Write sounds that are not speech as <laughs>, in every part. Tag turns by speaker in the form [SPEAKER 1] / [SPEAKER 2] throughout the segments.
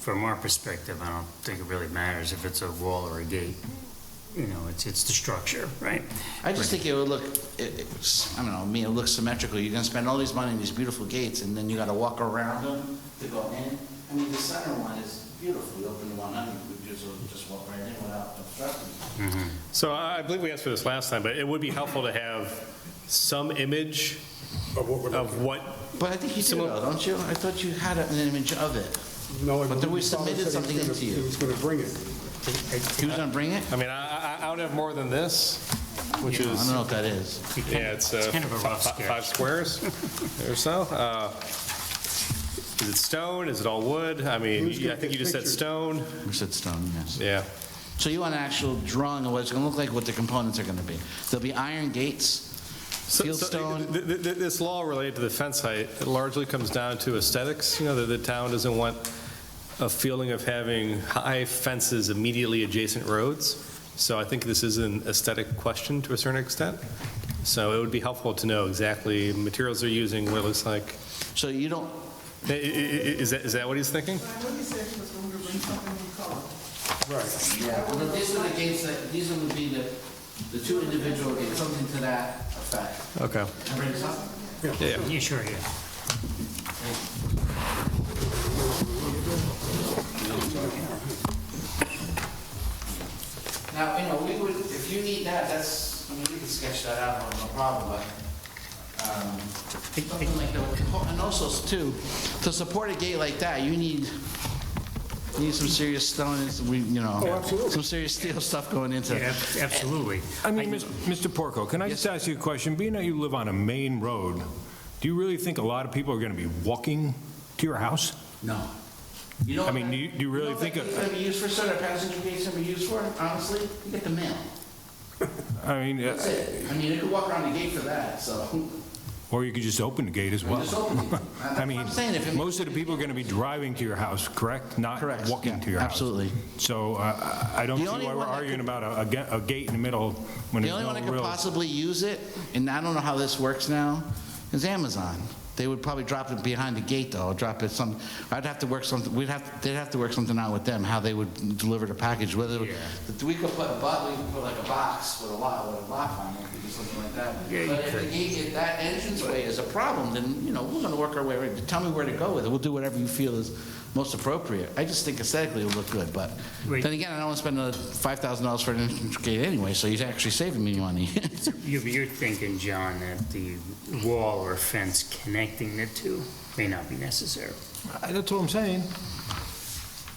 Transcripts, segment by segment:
[SPEAKER 1] from our perspective, I don't think it really matters if it's a wall or a gate. You know, it's, it's the structure, right?
[SPEAKER 2] I just think it would look, it- it's, I don't know, me, it looks symmetrical. You're gonna spend all these money on these beautiful gates, and then you gotta walk around them to go in. I mean, the center one is beautiful. You open the one up, you could just, just walk right in without obstructing.
[SPEAKER 3] So I I believe we asked for this last time, but it would be helpful to have some image
[SPEAKER 4] Of what we're
[SPEAKER 3] of
[SPEAKER 4] looking
[SPEAKER 3] what,
[SPEAKER 2] But I think you do,
[SPEAKER 3] Someone-
[SPEAKER 2] though, don't you? I thought you had an image of it.
[SPEAKER 4] No, I
[SPEAKER 2] But then we
[SPEAKER 4] believe Father
[SPEAKER 2] submitted
[SPEAKER 4] said he was
[SPEAKER 2] something
[SPEAKER 4] gonna-
[SPEAKER 2] into you.
[SPEAKER 4] He was going to bring it.
[SPEAKER 2] He was gonna bring it?
[SPEAKER 3] I mean, I, I- I don't have more than this, which
[SPEAKER 2] I don't
[SPEAKER 3] is,
[SPEAKER 2] know what that is.
[SPEAKER 3] yeah, it's uh,
[SPEAKER 1] It's kind of a rough
[SPEAKER 3] fi- fi-
[SPEAKER 1] sketch.
[SPEAKER 3] five squares or so. Uh, Is it stone? Is it all wood? I mean,
[SPEAKER 4] Who's gonna
[SPEAKER 3] I think
[SPEAKER 4] get
[SPEAKER 3] you just said
[SPEAKER 4] pictures?
[SPEAKER 3] stone.
[SPEAKER 2] We said stone, yes.
[SPEAKER 3] Yeah.
[SPEAKER 2] So you want an actual drawing of what it's gonna look like, what the components are gonna be. There'll be iron gates,
[SPEAKER 3] So- so
[SPEAKER 2] fieldstone.
[SPEAKER 3] th- th- th- This law related to the fence height it largely comes down to aesthetics, you know, that the town doesn't want a feeling of having high fences immediately adjacent roads. So I think this is an aesthetic question to a certain extent. So it would be helpful to know exactly materials they're using, what it looks like.
[SPEAKER 2] So you don't,
[SPEAKER 3] I- i- i- Is that, is that what he's thinking?
[SPEAKER 5] I know you said he was going to bring something in color.
[SPEAKER 4] Right.
[SPEAKER 2] Yeah, well, these are the gates that, these would be the, the two individual gates, something to that effect.
[SPEAKER 3] Okay.
[SPEAKER 2] Can I bring this up?
[SPEAKER 3] Yeah.
[SPEAKER 1] Yeah, sure, yeah.
[SPEAKER 2] Now, you know, we would, if you need that, that's, I mean, we could sketch that out, no problem, but, um, something like that. Oh, And also, too, to support a gate like that, you need, you need some serious stone, and some, you know, some serious steel stuff going into
[SPEAKER 1] Yeah,
[SPEAKER 2] it.
[SPEAKER 1] ab- Absolutely.
[SPEAKER 6] I mean, Mis- Mr. Porco, can I just ask you a question? Being that you live on a main road, do you really think a lot of people are going to be walking to your house?
[SPEAKER 2] No. You know
[SPEAKER 6] I mean,
[SPEAKER 2] what
[SPEAKER 6] do you- do you really
[SPEAKER 2] know what
[SPEAKER 6] think
[SPEAKER 2] that
[SPEAKER 6] of-
[SPEAKER 2] gate's gonna be used for, sort of passenger gates gonna be used for, honestly? You get the mail.
[SPEAKER 6] I mean, uh,
[SPEAKER 2] That's it. I mean, you could walk around the gate for that, so.
[SPEAKER 6] or you could just open the gate as well.
[SPEAKER 2] Just open it.
[SPEAKER 6] <laughs> I mean,
[SPEAKER 2] I'm saying if it-
[SPEAKER 6] most of the people are going to be driving to your house, correct? Not
[SPEAKER 2] Correct,
[SPEAKER 6] walking
[SPEAKER 2] yeah,
[SPEAKER 6] to your house.
[SPEAKER 2] absolutely.
[SPEAKER 6] So uh, I I don't
[SPEAKER 2] The
[SPEAKER 6] see
[SPEAKER 2] only
[SPEAKER 6] why we're
[SPEAKER 2] one that
[SPEAKER 6] arguing
[SPEAKER 2] could-
[SPEAKER 6] about a- a ga- a gate in the middle when
[SPEAKER 2] The
[SPEAKER 6] there's
[SPEAKER 2] only
[SPEAKER 6] no
[SPEAKER 2] one that could
[SPEAKER 6] real...
[SPEAKER 2] possibly use it, and I don't know how this works now, is Amazon. They would probably drop it behind the gate, though, or drop it some, I'd have to work something, we'd have, they'd have to work something out with them, how they would deliver the package, whether, we could put a box, we could put like a box with a lock, with a lock on it, we could do something like that.
[SPEAKER 1] Yeah, you
[SPEAKER 2] But if the
[SPEAKER 1] could.
[SPEAKER 2] gate, if that entranceway is a problem, then, you know, we're gonna work our way, around. tell me where to go with it, we'll do whatever you feel is most appropriate. I just think aesthetically it'll look good, but
[SPEAKER 1] Wait.
[SPEAKER 2] then again, I don't want to spend another five thousand dollars for an entrance gate anyway, so you're actually saving me money. <laughs>
[SPEAKER 1] You- You're thinking, John, that the wall or fence connecting the two may not be necessary.
[SPEAKER 6] Uh, That's what I'm saying.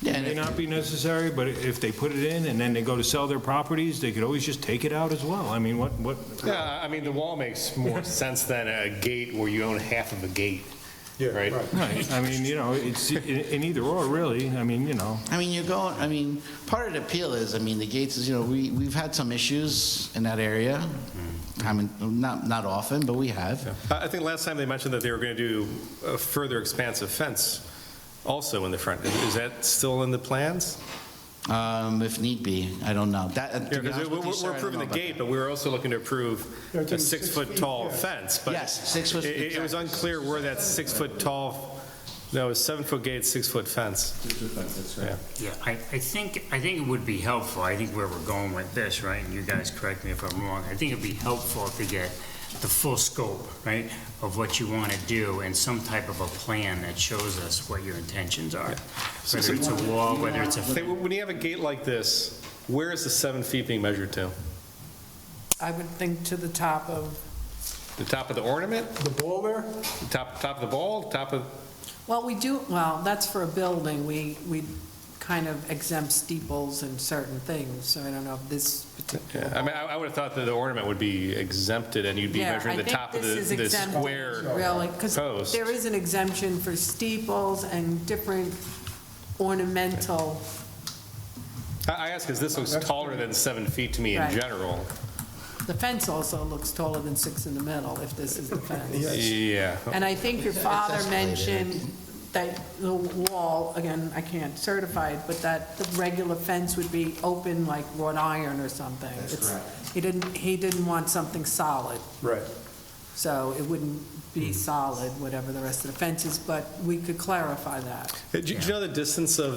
[SPEAKER 2] Yeah, and
[SPEAKER 6] May
[SPEAKER 2] if-
[SPEAKER 6] not be necessary, but if they put it in and then they go to sell their properties, they could always just take it out as well. I mean, what, what,
[SPEAKER 3] Yeah, Uh, I mean, the wall makes more <laughs> sense than a gate where you own half of a gate.
[SPEAKER 4] Yeah,
[SPEAKER 3] Right.
[SPEAKER 4] right.
[SPEAKER 6] Right, I mean, you know, it's i- in either or, really, I mean, you know.
[SPEAKER 2] I mean, you're going, I mean, part of the appeal is, I mean, the gates is, you know, we, we've had some issues in that area.
[SPEAKER 3] Mm-hmm.
[SPEAKER 2] I mean, not, not often, but we have.
[SPEAKER 3] I I think last time they mentioned that they were going to do a further expansive fence also in the front. Is is that still in the plans?
[SPEAKER 2] Um, if need be, I don't know. That, uh, to be
[SPEAKER 3] Because
[SPEAKER 2] honest with you, sir, I
[SPEAKER 3] we're
[SPEAKER 2] don't
[SPEAKER 3] approving
[SPEAKER 2] know
[SPEAKER 3] the
[SPEAKER 2] about
[SPEAKER 3] gate, but we were also looking to approve
[SPEAKER 4] Yeah, I
[SPEAKER 3] a
[SPEAKER 4] think it's six
[SPEAKER 3] six-foot
[SPEAKER 4] feet,
[SPEAKER 3] tall
[SPEAKER 4] yeah.
[SPEAKER 3] fence. but
[SPEAKER 2] Yes, six foot-
[SPEAKER 3] it- It it was unclear where that six-foot tall, no, it was seven-foot gate, six-foot fence.
[SPEAKER 1] Yeah, I, I think, I think it would be helpful, I think where we're going with this, right, and you guys correct me if I'm wrong, I think it'd be helpful to get the full scope, right, of what you want to do and some type of a plan that shows us what your intentions are. Whether it's a wall, whether it's a
[SPEAKER 3] Say, w- When you have a gate like this, where is the seven feet being measured to?
[SPEAKER 7] I would think to the top of,
[SPEAKER 3] The top of the ornament?
[SPEAKER 4] The ball there?
[SPEAKER 3] The Top, top of the ball? Top of,
[SPEAKER 7] well, we do, well, that's for a building, we, we kind of exempt steeples and certain things, so I don't know if this
[SPEAKER 3] yeah,
[SPEAKER 7] particular.
[SPEAKER 3] I mean, I would have thought that the ornament would be exempted and you'd be
[SPEAKER 7] Yeah,
[SPEAKER 3] measuring
[SPEAKER 7] I
[SPEAKER 3] the
[SPEAKER 7] think
[SPEAKER 3] top of
[SPEAKER 7] this
[SPEAKER 3] the
[SPEAKER 7] is
[SPEAKER 3] the
[SPEAKER 7] exempt,
[SPEAKER 3] square.
[SPEAKER 7] Really, because
[SPEAKER 3] post.
[SPEAKER 7] there is an exemption for steeples and different ornamental,
[SPEAKER 3] I I ask, because this looks taller than seven feet to me in
[SPEAKER 7] Right.
[SPEAKER 3] general.
[SPEAKER 7] the fence also looks taller than six in the middle, if this is the fence.
[SPEAKER 3] Yeah.
[SPEAKER 7] And I think your
[SPEAKER 2] It's- it's
[SPEAKER 7] father
[SPEAKER 2] escalated.
[SPEAKER 7] mentioned that the wall, again, I can't certify it, but that the regular fence would be open like wrought iron or something. It's- He didn't, he didn't want something solid,
[SPEAKER 4] Right.
[SPEAKER 7] so it wouldn't be
[SPEAKER 2] Mm-hmm.
[SPEAKER 7] solid, whatever the rest of the fence is, but we could clarify that.
[SPEAKER 3] Do you do you know the distance of